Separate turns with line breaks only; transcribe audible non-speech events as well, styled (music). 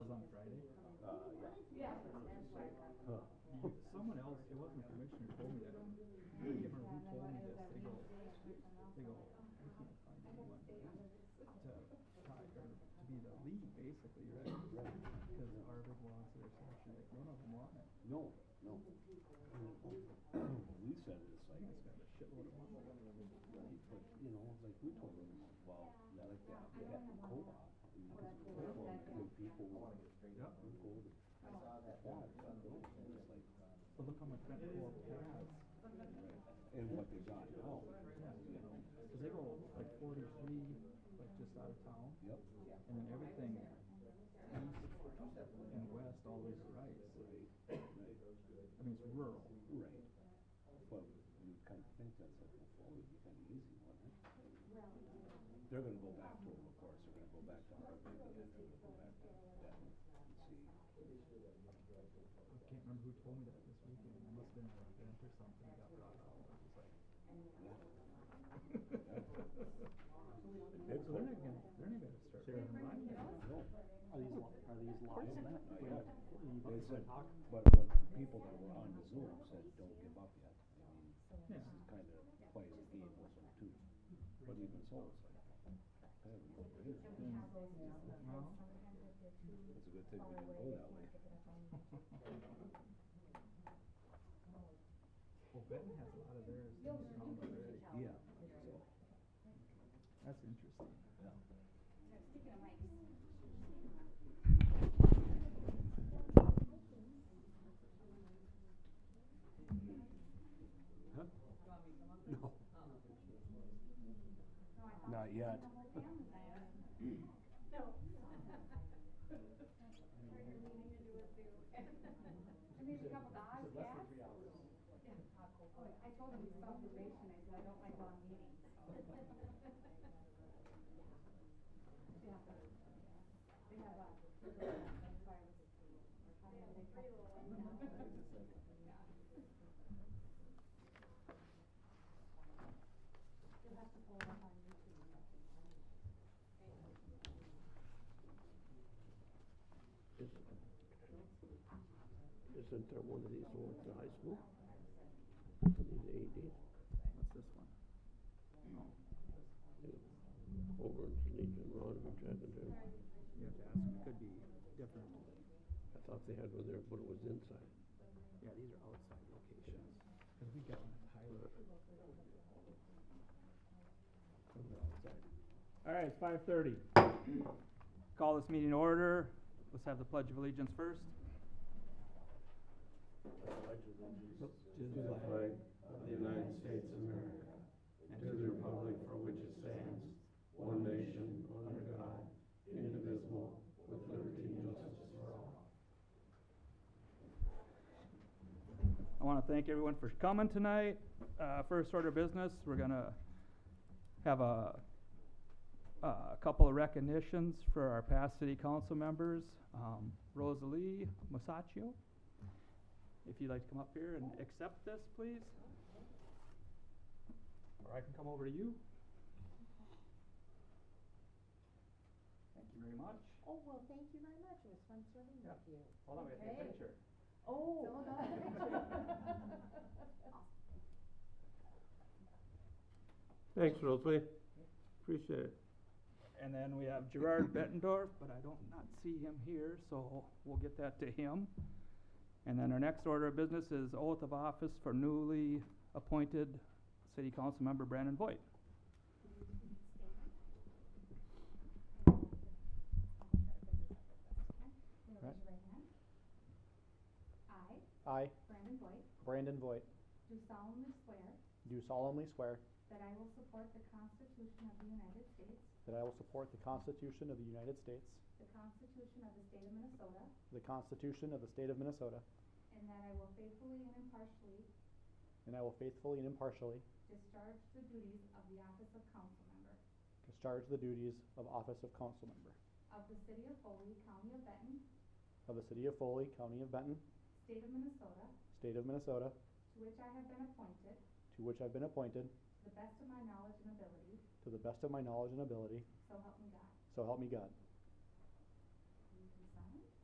mistake.
Huh.
Someone else, it wasn't a commissioner, told me that. um, I can't remember who told me this. They go, they go, we can't find anyone to try, or to be the lead, basically, right?
Right.
Because Harvard belongs to their section, like, none of them want it.
No, no. We said it's
I
like,
think it's got a shitload of money.
right, but, you know, like we told them, well, not like that, we got the co-op. and because of the co-op, and people want to go
Yep.
to that, and it's like,
But look how much that co-op has.
and what they got now, you know,
Cause they go like forty-three, like just out of town,
yep.
and then everything east and west always rides.
Right, right,
I mean, it's rural.
right. But you kind of think that's like, well, it'd be kind of easy, wouldn't it? They're gonna go back to them, of course, they're gonna go back to Harvard, and then they're gonna go back to that, and see.
I can't remember who told me that this weekend. It must've been an event or something that got brought up. I was like.
(laughs)
So they're not gonna, they're not gonna start running money.
No.
Are these, li- are these live?
Not
Wait,
yet.
are you
They
voting for
said,
Hawk?
but what people that were on the Zoom said, don't give up yet. I mean, this is kind of plays a game also too. But even so, it's like, kind of no brainer.
No?
It's a good thing we didn't go that way.
Well, Benton has a lot of theirs in the town already.
Yeah, so,
That's interesting.
yeah. Huh? No. Not yet.
No. Sure you're meaning to do it too. I mean, a couple dogs, yeah. Yeah, Oh, I told him it's about duration, I said, I don't like long meetings. Yeah. They have a. That's why I was. They have a three little ones. You'll have to pull it up on YouTube.
Isn't there one of these over at the high school? These AEDs?
What's this one? Oh,
Over in Sneed and Rodovich, hadn't there?
You have to ask. It could be different.
I thought they had one there, but it was inside.
Yeah, these are outside locations. Cause we got one at Tyler.
All right, it's five thirty. Call this meeting to order. Let's have the pledge of allegiance first.
To the flag of the United States of America, and to the republic for which it stands, one nation, under God, indivisible, with liberty and justice for all.
I want to thank everyone for coming tonight. Uh, first order of business, we're gonna have a, a couple of recognitions for our past city council members. Um, Rosalie Masaccio, if you'd like to come up here and accept this, please. Or I can come over to you. Thank you very much.
Oh, well, thank you very much, it was fun serving
Yeah.
with you.
Hold on, we have to take a picture.
Okay. Oh.
Someone got a
Thanks, Rosalie. Appreciate it.
And then we have Gerard Bettendorf, but I don't not see him here, so we'll get that to him. And then our next order of business is oath of office for newly appointed city council member Brandon Voigt.
Raise your right hand. I,
I,
Brandon Boyd,
Brandon Voight,
do solemnly swear
do solemnly swear
that I will support the Constitution of the United States,
that I will support the Constitution of the United States,
the Constitution of the State of Minnesota,
the Constitution of the State of Minnesota,
and that I will faithfully and impartially
and I will faithfully and impartially
discharge the duties of the office of council member
discharge the duties of office of council member
of the city of Foley, county of Benton,
of the City of Foley, County of Benton,
state of Minnesota,
State of Minnesota,
to which I have been appointed, to
to which I've been appointed
the best of my knowledge and ability,
to the best of my knowledge and ability,
so help me God.
so help me God.